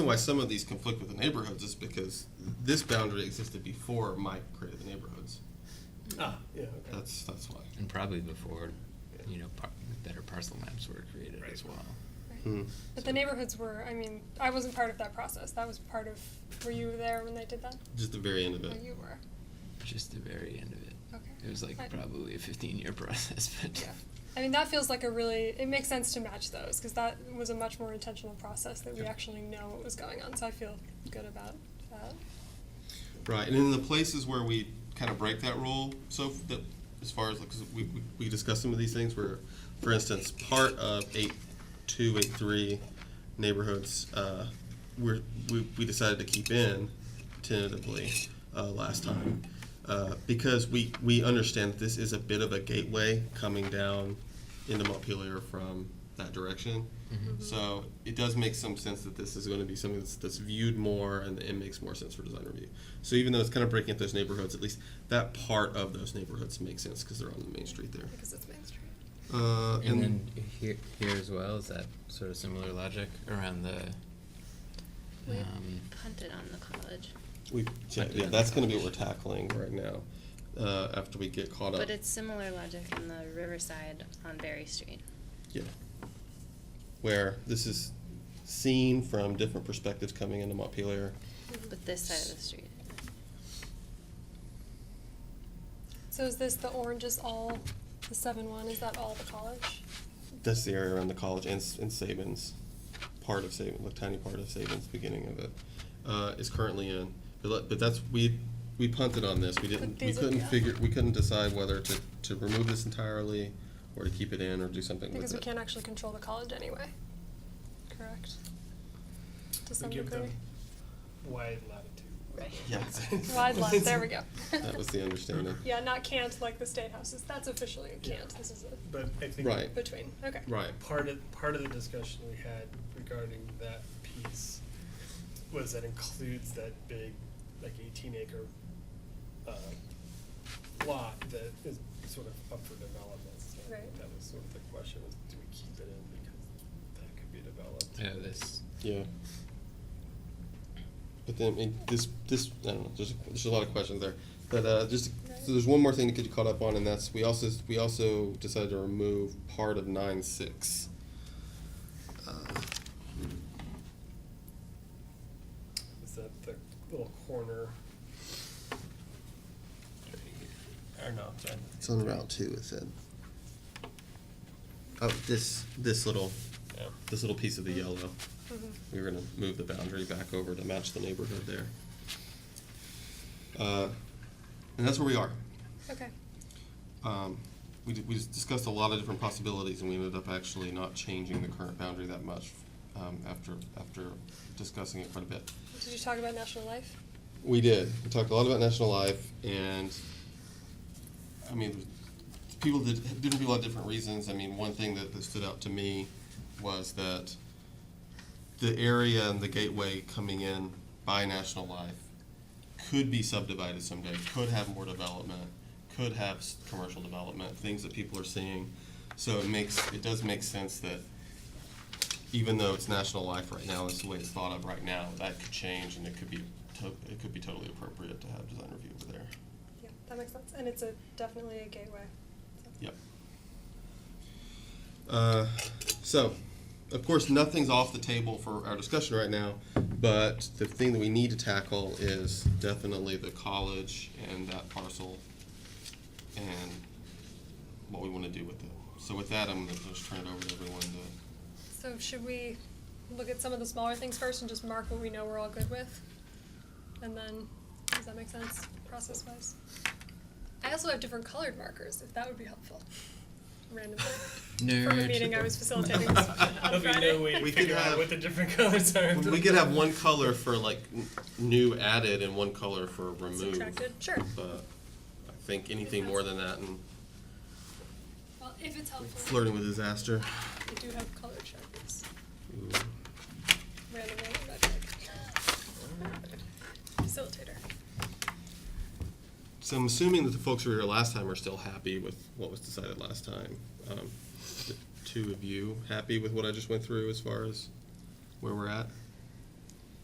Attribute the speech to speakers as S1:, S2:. S1: reason why some of these conflict with the neighborhoods is because this boundary existed before Mike created the neighborhoods.
S2: Ah, yeah, okay.
S1: That's, that's why.
S3: And probably before, you know, par- better parcel maps were created as well.
S1: Hmm.
S4: But the neighborhoods were, I mean, I wasn't part of that process. That was part of, were you there when they did that?
S1: Just the very end of
S4: Or
S1: it.
S4: you were?
S3: Just the very end of it.
S4: Okay.
S3: It was like
S4: I-
S3: probably a 15 year process, but
S4: Yeah. I mean, that feels like a really, it makes sense to match those because that was a much more intentional process that we actually know what was going on. So I feel good about that.
S1: Right, and in the places where we kind of break that rule, so f- that, as far as, because we, we- we discussed some of these things, where, for instance, part of eight two, eight three neighborhoods, uh, we're, we, we decided to keep in tentatively, uh, last time. Uh, because we, we understand that this is a bit of a gateway coming down into Montpelier from that direction.
S5: Mm-hmm.
S1: So it does make some sense that this is going to be something that's, that's viewed more and it makes more sense for design review. So even though it's kind of breaking up those neighborhoods, at least that part of those neighborhoods makes sense because they're on the main street there.
S4: Because it's Main Street.
S1: Uh,
S3: And then here, here as well, is that sort of similar logic around the.
S5: We
S3: Um,
S5: punted on the college,
S1: we yeah, yeah, that's going to be what we're tackling right now. Uh, after we get caught up,
S5: but it's similar logic in the Riverside on Berry Street.
S1: yeah, where this is seen from different perspectives coming into Montpelier.
S5: But this side of the street,
S4: So is this the orange is all, the 7 1, is that all the college?
S1: That's the area around the college and, S- and Sabins, part of Sabins, a tiny part of Sabins, beginning of it, uh, is currently in. But, let- but that's, we, we punted on this. We didn't, we
S4: these are-
S1: couldn't
S4: yeah.
S1: figure, we couldn't decide whether to, to remove this entirely or to keep it in or do something with
S4: Because we
S1: it.
S4: can't actually control the college anyway. Correct? To some
S2: We give
S4: degree.
S2: them wide latitude.
S5: right?
S1: Yeah.
S4: Wide lot, there we go.
S1: That was the understanding.
S4: Yeah, not can't like the state houses. That's officially a can't. This is a
S2: But I think
S1: Right.
S4: between. Okay.
S1: Right.
S2: part of part of the discussion we had regarding that piece was that includes that big, like eighteen acre uh, lot that is sort of up for development. So
S4: Right.
S2: That was sort of the question: was do we keep it in because that could be developed?
S3: yeah, this.
S1: Yeah. But then, I mean, this, this, I don't know, there's, there's a lot of questions there. But, uh, just, so there's one more thing to get you caught up on, and that's, we also, we also decided to remove part of nine six. Uh,
S2: Is that the little corner? Or no, sorry.
S1: It's on Route two, it said. Oh, this, this little,
S2: Yeah.
S1: this little piece of the yellow. We were gonna move the boundary back over to match the neighborhood there. Uh, and that's where we are.
S4: Okay.
S1: um, we, d- we just discussed a lot of different possibilities, and we ended up actually not changing the current boundary that much um, after after discussing it quite a bit.
S4: Did you talk about national life?
S1: We did. We talked a lot about national life, and I mean, people did different people had different reasons. I mean, one thing that, that stood out to me was that the area and the gateway coming in by national life could be subdivided someday. Could have more development. Could have s- commercial development. Things that people are seeing. So it makes it does make sense that even though it's national life right now, it's the way it's thought of right now, that could change and it could be, to- it could be totally appropriate to have design review over there.
S4: Yeah, that makes sense. And it's a definitely a gateway.
S1: Yep. Uh, so, of course, nothing's off the table for our discussion right now, but the thing that we need to tackle is definitely the college and that parcel and what we want to do with it. So with that, I'm going to just turn it over to everyone to,
S4: So should we look at some of the smaller things first and just mark what we know we're all good with? And then does that make sense process wise? I also have different colored markers, if that would be helpful. Randomly. From a
S3: Nerd.
S4: meeting I was facilitating this on
S2: There'll be no way
S4: Friday.
S2: to
S1: We could
S2: figure
S1: have-
S2: out what the different colors are.
S1: we could have one color for like n- new added and one color for remove.
S4: Subtracted, sure.
S1: But I think anything more than that and
S4: Well, if it's helpful.
S1: flirting with disaster.
S4: We do have colored sharpies.
S1: Ooh.
S4: Random random magic. Facilitator.
S1: So I'm assuming that the folks who were here last time are still happy with what was decided last time. Um, the two of you happy with what I just went through as far as where we're at?